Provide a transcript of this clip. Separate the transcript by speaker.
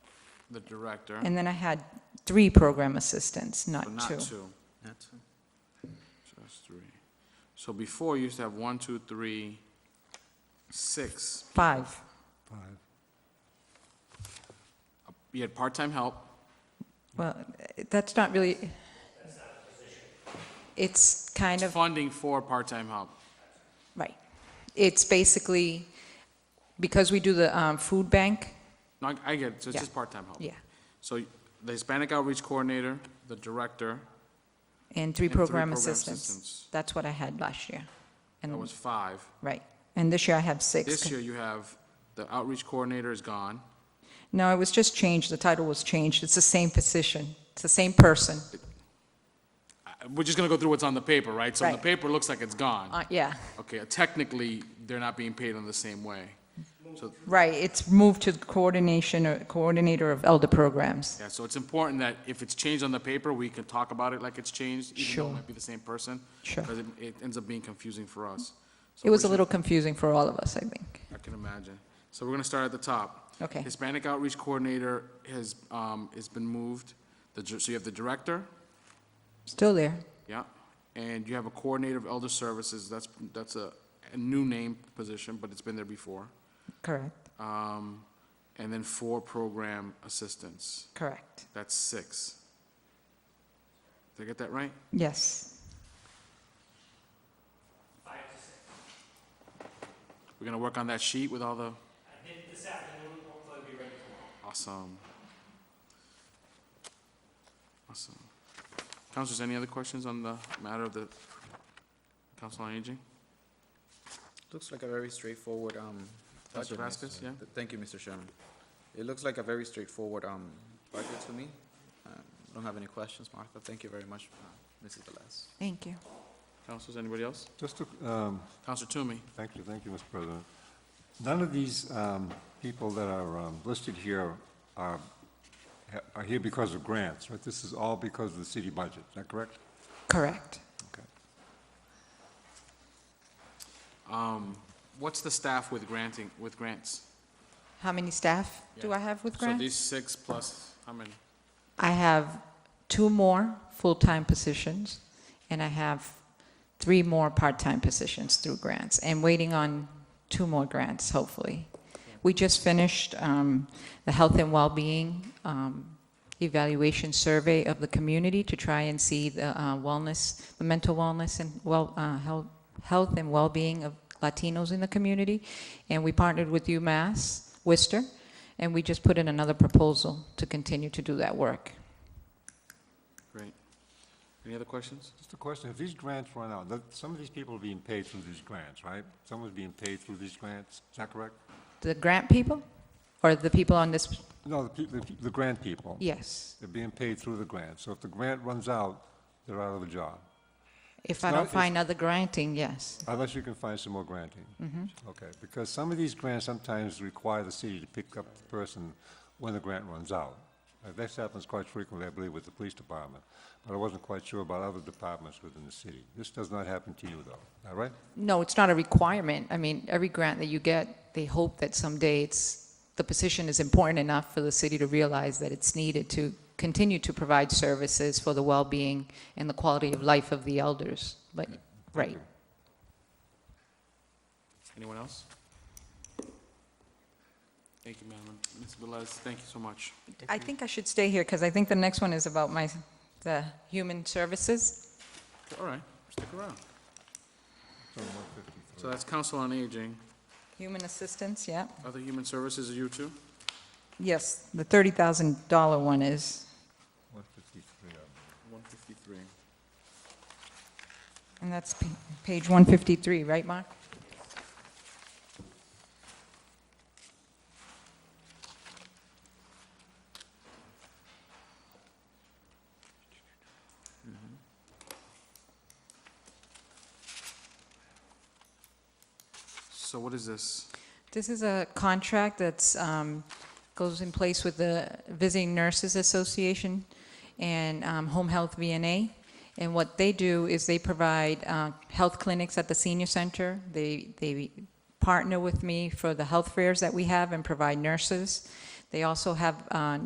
Speaker 1: the director,
Speaker 2: And then I had three program assistants,
Speaker 1: but
Speaker 2: not
Speaker 1: not
Speaker 2: two.
Speaker 1: two.
Speaker 3: That's
Speaker 1: So that's three. So before, you used to have one, two, three, six.
Speaker 2: Five,
Speaker 4: Five.
Speaker 1: You had part-time help,
Speaker 2: well, that's not really. It's kind of,
Speaker 1: funding for part-time help.
Speaker 2: right. It's basically, because we do the um, food bank,
Speaker 1: No, I- I get it, so it's
Speaker 2: Yeah.
Speaker 1: just part-time help.
Speaker 2: yeah,
Speaker 1: So the Hispanic Outreach Coordinator, the Director,
Speaker 2: and three
Speaker 1: And three
Speaker 2: program
Speaker 1: program
Speaker 2: assistants.
Speaker 1: assistants.
Speaker 2: That's what I had last year.
Speaker 1: that
Speaker 2: And,
Speaker 1: was five.
Speaker 2: right. And this year I have six.
Speaker 1: This year, you have, the Outreach Coordinator is gone.
Speaker 2: No, it was just changed, the title was changed, it's the same position, it's the same person,
Speaker 1: I- We're just gonna go through what's on the paper, right? So the
Speaker 2: Right.
Speaker 1: paper looks like it's gone.
Speaker 2: Uh, yeah,
Speaker 1: Okay, technically, they're not being paid in the same way. So,
Speaker 2: right, it's moved to coordination, or coordinator of elder programs.
Speaker 1: yeah, so it's important that if it's changed on the paper, we can talk about it like it's changed, even though
Speaker 2: Sure.
Speaker 1: it might be the same person.
Speaker 2: Sure.
Speaker 1: Because it ends up being confusing for us. So we
Speaker 2: It was a
Speaker 1: should-
Speaker 2: little confusing for all of us, I think.
Speaker 1: I can imagine. So we're gonna start at the top.
Speaker 2: Okay.
Speaker 1: Hispanic Outreach Coordinator has, um, has been moved. The, dir- so you have the Director,
Speaker 2: Still there,
Speaker 1: Yeah, and you have a coordinator of elder services, that's, that's a, a new name position, but it's been there before.
Speaker 2: correct,
Speaker 1: Um, and then four program assistants,
Speaker 2: correct,
Speaker 1: that's six. Did I get that right?
Speaker 2: yes,
Speaker 1: We're gonna work on that sheet with all the. I did this afternoon, Awesome. Awesome. Councilors, any other questions on the matter of the Council on Aging?
Speaker 3: Looks like a very straightforward, um.
Speaker 1: Counselor
Speaker 3: budget, Mr.
Speaker 1: Vasquez, yeah?
Speaker 3: Th- Thank you, Mr. Chairman. It looks like a very straightforward, um, budget to me. Um, Don't have any questions, Martha. Thank you very much, uh, Mrs. Velez.
Speaker 2: thank you.
Speaker 1: Councilors, anybody else?
Speaker 4: Just to, um,
Speaker 1: Councilor Toomey?
Speaker 4: thank you, thank you, Mr. President. None of these um, people that are um, listed here are, ha- are here because of grants, right? This is all because of the city budget, is that correct?
Speaker 2: Correct.
Speaker 4: Okay.
Speaker 1: Um, what's the staff with granting, with grants?
Speaker 2: How many staff do
Speaker 1: Yeah.
Speaker 2: I have with
Speaker 1: So
Speaker 2: grants?
Speaker 1: these six plus, how many?
Speaker 2: I have two more full-time positions, and I have three more part-time positions through grants, and waiting on two more grants, hopefully. We just finished um, the health and well-being um, evaluation survey of the community to try and see the uh, wellness, the mental wellness and well, uh, health, health and well-being of Latinos in the community. And we partnered with UMass Worcester, and we just put in another proposal to continue to do that work.
Speaker 1: Great. Any other questions?
Speaker 4: Just a question, if these grants run out, that- some of these people are being paid through these grants, right? Someone's being paid through these grants, is that correct?
Speaker 2: The grant people, or the people on this,
Speaker 4: No, the pe- the, pe- the grant people.
Speaker 2: yes,
Speaker 4: They're being paid through the grant, so if the grant runs out, they're out of a job,
Speaker 2: if I
Speaker 4: not-
Speaker 2: don't
Speaker 4: it's-
Speaker 2: find other granting, yes,
Speaker 4: unless you can find some more granting. Okay, because some of these grants sometimes require the city to pick up the person when the grant runs out. Uh, This happens quite frequently, I believe, with the police department, but I wasn't quite sure about other departments within the city. This does not happen to you, though, all right?
Speaker 2: No, it's not a requirement. I mean, every grant that you get, they hope that someday it's, the position is important enough for the city to realize that it's needed to continue to provide services for the well-being and the quality of life of the elders. But, right.
Speaker 1: Anyone else? Thank you, Madam. Ms. Velez, thank you so much.
Speaker 2: I think I should stay here because I think the next one is about my, the human services.
Speaker 1: All right, stick around. So that's Council on Aging.
Speaker 2: Human assistance, yeah.
Speaker 1: Other Human Services, are you two?
Speaker 2: Yes, the $30,000 one is,
Speaker 4: One fifty-three.
Speaker 1: One fifty-three.
Speaker 2: and that's pa- page 153, right, Mark?
Speaker 1: So what is this?
Speaker 2: This is a contract that's, um, goes in place with the Visiting Nurses Association and um, Home Health VNA. And what they do is they provide uh, health clinics at the senior center. They, they partner with me for the health fairs that we have and provide nurses. They also have uh,